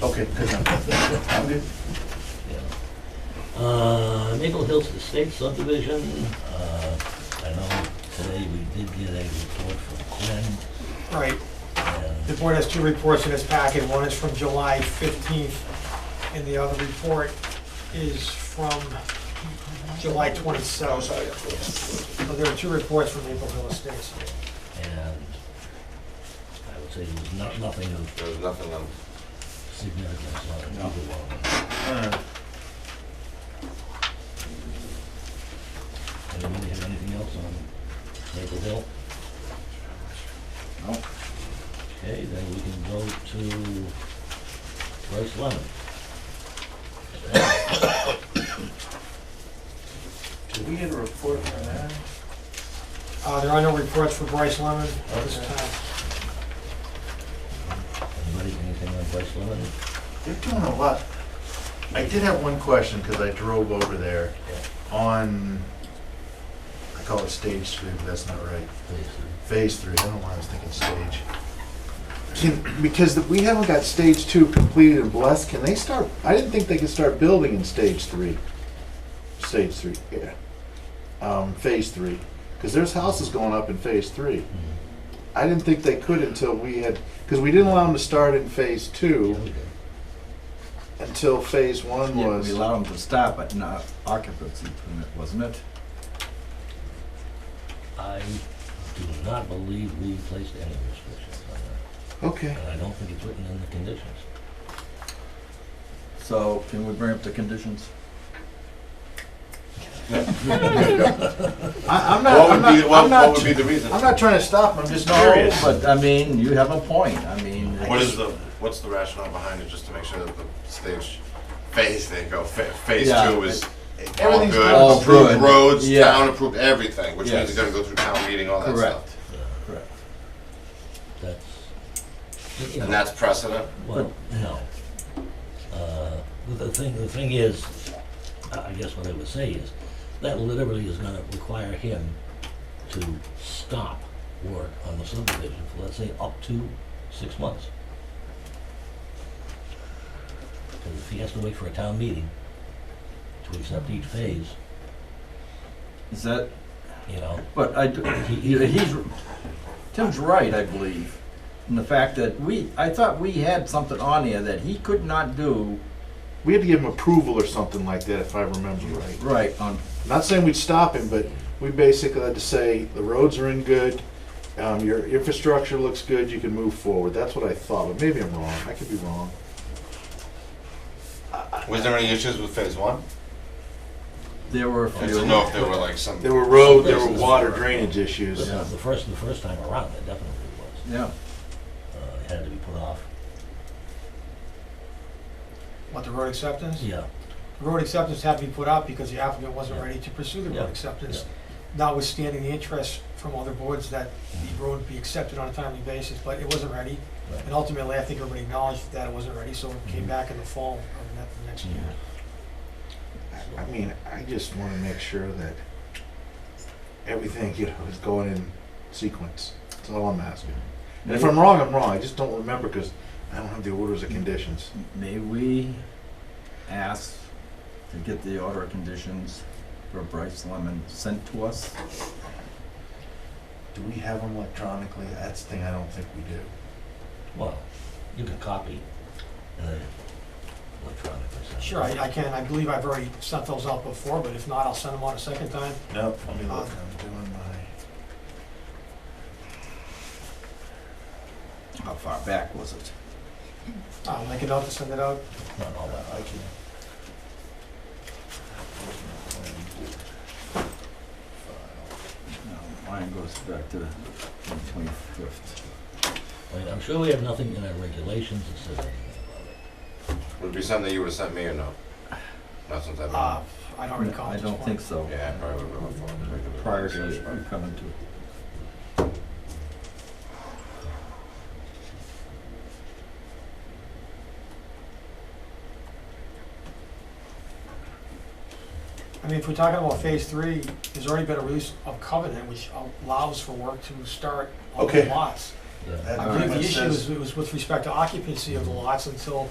Okay, good enough. I'm good. Uh, Maple Hills Estate subdivision, uh, I know today we did get a report from Quinn, Right, and the board has two reports in its packet, one is from July 15th, and the other report is from July Oh, 27th. So there are two reports from Maple Hill Estates. and I would say there was not, nothing of There was nothing on, significance on No. either one. Uh, Anybody have anything else on Maple Hill? No. Okay, then we can go to Bryce Lemon. Did we get a report from that? Uh, There are no reports for Bryce Lemon at this Okay. time. Anybody, anything on Bryce Lemon? They're doing a lot. I did have one question, because I drove over there on, I call it stage three, but that's not right. Please. Phase three, I don't know why I was thinking stage. Can, because we haven't got stage two completed and blessed, can they start, I didn't think they could start building in stage three. Stage three, yeah. Um, phase three, because there's houses going up in phase three. Mm-hmm. I didn't think they could until we had, because we didn't allow them to start in phase two Okay. until phase one Yeah, we was. allowed them to stop, but not occupancy permit, wasn't it? I do not believe we placed any restrictions on that, Okay, and I don't think it's written in the conditions. So can we bring up the conditions? I, I'm not, what I'm would be, not, what I'm what would not, be the reason? I'm not trying to stop them, I'm just No, curious. but I mean, you have a point, I mean. What is the, what's the rationale behind it, just to make sure that the stage phase, they go, fa- phase Yeah, two is all everything's good, all approved good. roads, Yeah. town approved everything, which means Yes. it's gonna go through town meeting, all that Correct. stuff. Correct. That's, you And know, that's precedent? well, no. Uh, The the thing, the thing is, I I guess what I would say is, that literally is gonna require him to stop work on the subdivision for, let's say, up to six months. Because if he has to wait for a town meeting to accept each phase, Is that, you know, but I, d- he- he's, Tim's right, I believe, in the fact that we, I thought we had something on here that he could not do We had to give them approval or something like that, if I remember right. right on, Not saying we'd stop him, but we basically had to say, the roads are in good, um, your infrastructure looks good, you can move forward. That's what I thought, but maybe I'm wrong. I could be wrong. Was there any issues with phase one? there were a I few. don't know if there were like some. There were road, there were places water where- drainage issues. But uh, the first, the first time around, it definitely was. Yeah, Uh, It had to be put off. What, the road acceptance? Yeah. The road acceptance had to be put out because the applicant wasn't Yeah. ready to pursue the Yeah, road acceptance, notwithstanding the interest from other boards that the road be accepted on a timely basis, but it wasn't ready. Right. And ultimately, I think everybody acknowledged that it wasn't ready, so it came Mhm. back in the fall of ne- next year. I mean, I just wanna make sure that everything, you know, is going in sequence. That's all I'm asking. And if I'm wrong, I'm wrong. I just don't remember, cause I don't have the orders of conditions. may we ask to get the order of conditions for Bryce Lemon sent to us? Do we have them electronically? That's the thing I don't think we do. Well, you can copy and then electronic or something. Sure, I I can, I believe I've already sent those out before, but if not, I'll send them out a second time. Nope, let me look, I'm doing my, How far back was it? I'll make it out to send it out. Not all that. I can. No, Um, Mine goes back to the twenty-fifth. I mean, I'm sure we have nothing in our regulations that says anything about it. Would it be something you would've sent me or no? Not since I've Uh, been, I don't recall. I at this don't point. think so. yeah, I probably would've been before. Prior to you coming to. I mean, if we're talking about phase three, there's already been a release of covenant which allows for work to start on the Okay. lots. Yeah. That I pretty believe the much issue says- is, was with respect to occupancy of the lots until